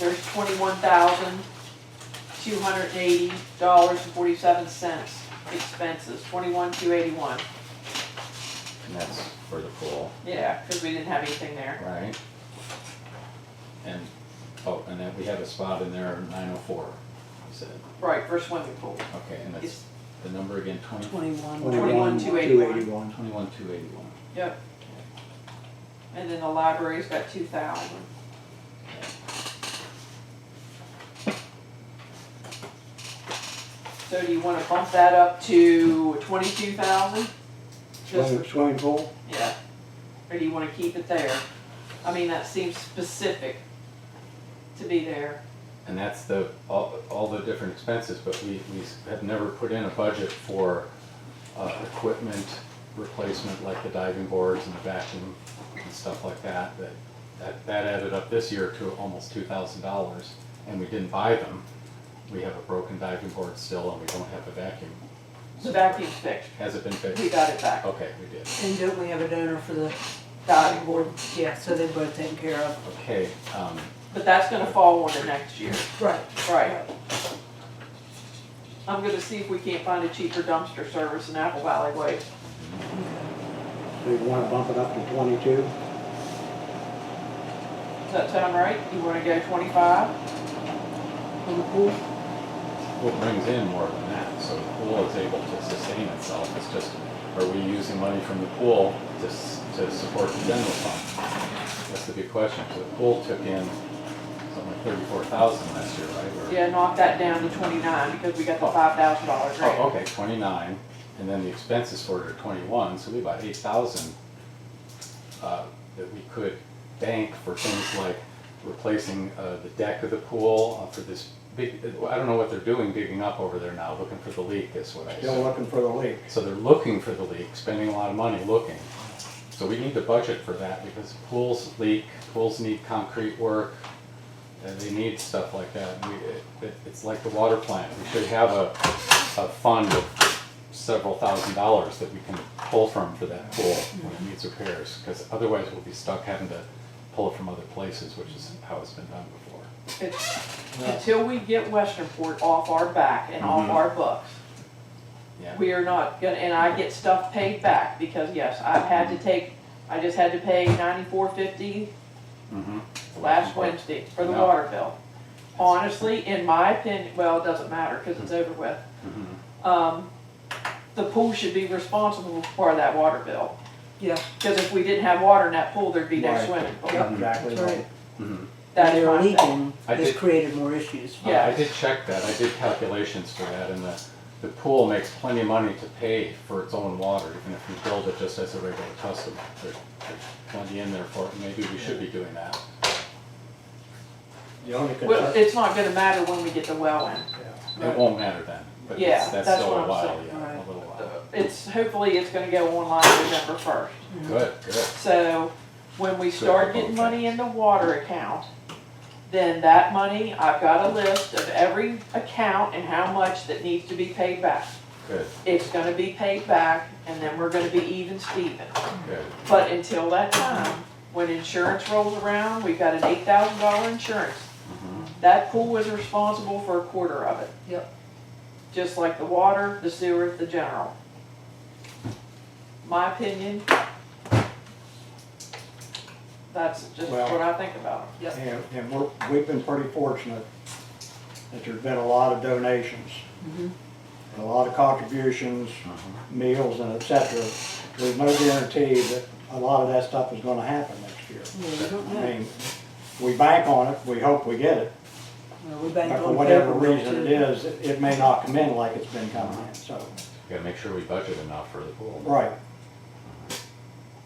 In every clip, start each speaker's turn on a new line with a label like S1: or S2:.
S1: there's twenty-one thousand, two hundred and eighty dollars and forty-seven cents expenses, twenty-one, two eighty-one.
S2: and that's for the pool,
S1: Yeah, cause we didn't have anything there.
S2: right? And, oh, and then we have a spot in there, nine oh four, you said,
S1: Right, for swimming pool.
S2: okay, and
S1: It's
S2: that's the number again, twenty,
S1: twenty-one,
S3: Twenty-one,
S1: twenty-one,
S3: two
S1: two eighty-one.
S3: eighty-one.
S2: twenty-one, two eighty-one.
S1: Yep. And then the library's got two thousand. So do you wanna bump that up to twenty-two thousand? Just for
S3: Swimming, swimming pool,
S1: Yeah, or do you wanna keep it there? I mean, that seems specific to be there.
S2: And that's the, all, all the different expenses, but we, we have never put in a budget for, uh, equipment replacement like the diving boards and the vacuum and stuff like that, that, that, that added up this year to almost two thousand dollars, and we didn't buy them. We have a broken diving board still, and we don't have a vacuum.
S1: The vacuum's fixed,
S2: Has it been
S1: we
S2: fixed?
S1: got it back.
S2: Okay, we did.
S4: And don't we have a donor for
S1: Uh,
S4: the
S1: Got
S4: diving
S1: it.
S4: board? Yeah, so they're both taken care of.
S2: Okay, um,
S1: But that's gonna fall on to next year,
S4: Right.
S1: right? I'm gonna see if we can't find a cheaper dumpster service in Apple Valley Way.
S3: so you wanna bump it up to twenty-two?
S1: Does that sound right? You wanna go twenty-five?
S4: On the pool?
S2: Well, it brings in more than that, so the pool is able to sustain itself, it's just, are we using money from the pool to, s- to support the general fund? That's the big question, so the pool took in something like thirty-four thousand last year, right? Or-
S1: Yeah, knock that down to twenty-nine, because we got the five thousand dollar
S2: Oh,
S1: grant.
S2: okay, twenty-nine, and then the expenses for it are twenty-one, so we have about eight thousand uh, that we could bank for things like replacing uh, the deck of the pool uh, for this big, I don't know what they're doing digging up over there now, looking for the leak is what I assume.
S3: Still looking for the leak.
S2: So they're looking for the leak, spending a lot of money looking. So we need to budget for that because pools leak, pools need concrete work, and they need stuff like that. We, it, it's like the water plant, we should have a, a fund of several thousand dollars that we can pull from for that pool when it needs repairs. Because otherwise we'll be stuck having to pull it from other places, which is how it's been done before.
S1: It's- Until we get Westernport off our back and off
S2: Mhm.
S1: our books,
S2: Yeah,
S1: We are not gonna, and I get stuff paid back, because yes, I've had to take, I just had to pay ninety-four fifty
S2: mhm.
S1: last Wednesday for the water bill. Honestly, in my opinion, well, it doesn't matter, cause it's over with,
S2: Mhm.
S1: um, the pool should be responsible for that water bill.
S4: Yeah.
S1: Cause if we didn't have water in that pool, there'd be no
S3: Right.
S1: swimming pool.
S3: Yep, Exactly.
S4: That's right.
S2: Mhm.
S1: That
S4: They
S1: is
S4: were
S1: my thing.
S4: leaking,
S2: I
S4: this
S2: did-
S4: created more issues.
S1: Yeah.
S2: I I did check that, I did calculations for that, and the, the pool makes plenty of money to pay for its own water, even if you build it just as a regular custom. There's there's plenty in there for it, and maybe we should be doing that.
S3: The only
S1: Well,
S3: concern,
S1: it's not gonna matter when we get the well in.
S2: It won't matter then, but
S1: Yeah,
S2: it's- that's
S1: that's
S2: still
S1: what
S2: a
S1: I'm
S2: while,
S1: saying,
S2: yeah, a
S4: right.
S2: little while.
S1: It's, hopefully, it's gonna go online November first.
S2: Good, good.
S1: So when we start getting money in the water account, then that money, I've got a list of every account and how much that needs to be paid back.
S2: Good,
S1: It's gonna be paid back and then we're gonna be even Steven.
S2: good.
S1: But until that time, when insurance rolls around, we've got an eight thousand dollar insurance.
S2: Mhm.
S1: That pool was responsible for a quarter of it.
S4: Yep.
S1: Just like the water, the sewer, the general. My opinion. That's just
S3: Well-
S1: what I think about it.
S4: Yep.
S3: and, and we're, we've been pretty fortunate that there's been a lot of donations,
S4: Mhm.
S3: a lot of contributions,
S4: Uh-huh.
S3: meals and et cetera. There's no guarantee that a lot of that stuff is gonna happen next year.
S4: Yeah, we don't
S3: I
S4: know.
S3: mean, we bank on it, we hope we get it,
S4: Well, we banked
S3: but for
S4: on
S3: whatever
S4: February,
S3: reason it
S4: too.
S3: is, it it may not come in like it's been coming in, so,
S2: Gotta make sure we budget enough for the pool.
S3: right.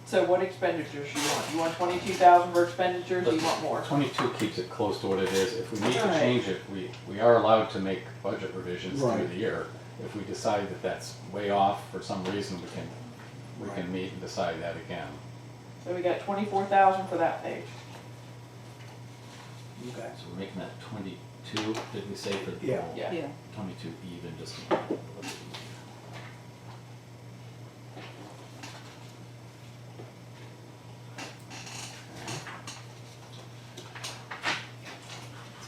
S1: So what expenditures you want? You want twenty-two thousand for expenditures, or you want more?
S2: Twenty-two keeps it close to what it is. If we need to
S1: Right.
S2: change it, we, we are allowed to make budget revisions through
S3: Right.
S2: the year. If we decide that that's way off for some reason, we can, we
S3: Right.
S2: can meet and decide that again.
S1: So we got twenty-four thousand for that page.
S3: Okay.
S2: So we're making that twenty-two, did we say for the
S3: Yeah.
S2: poll?
S1: Yeah.
S4: Yeah,
S2: Twenty-two even, just. to-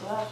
S1: So that's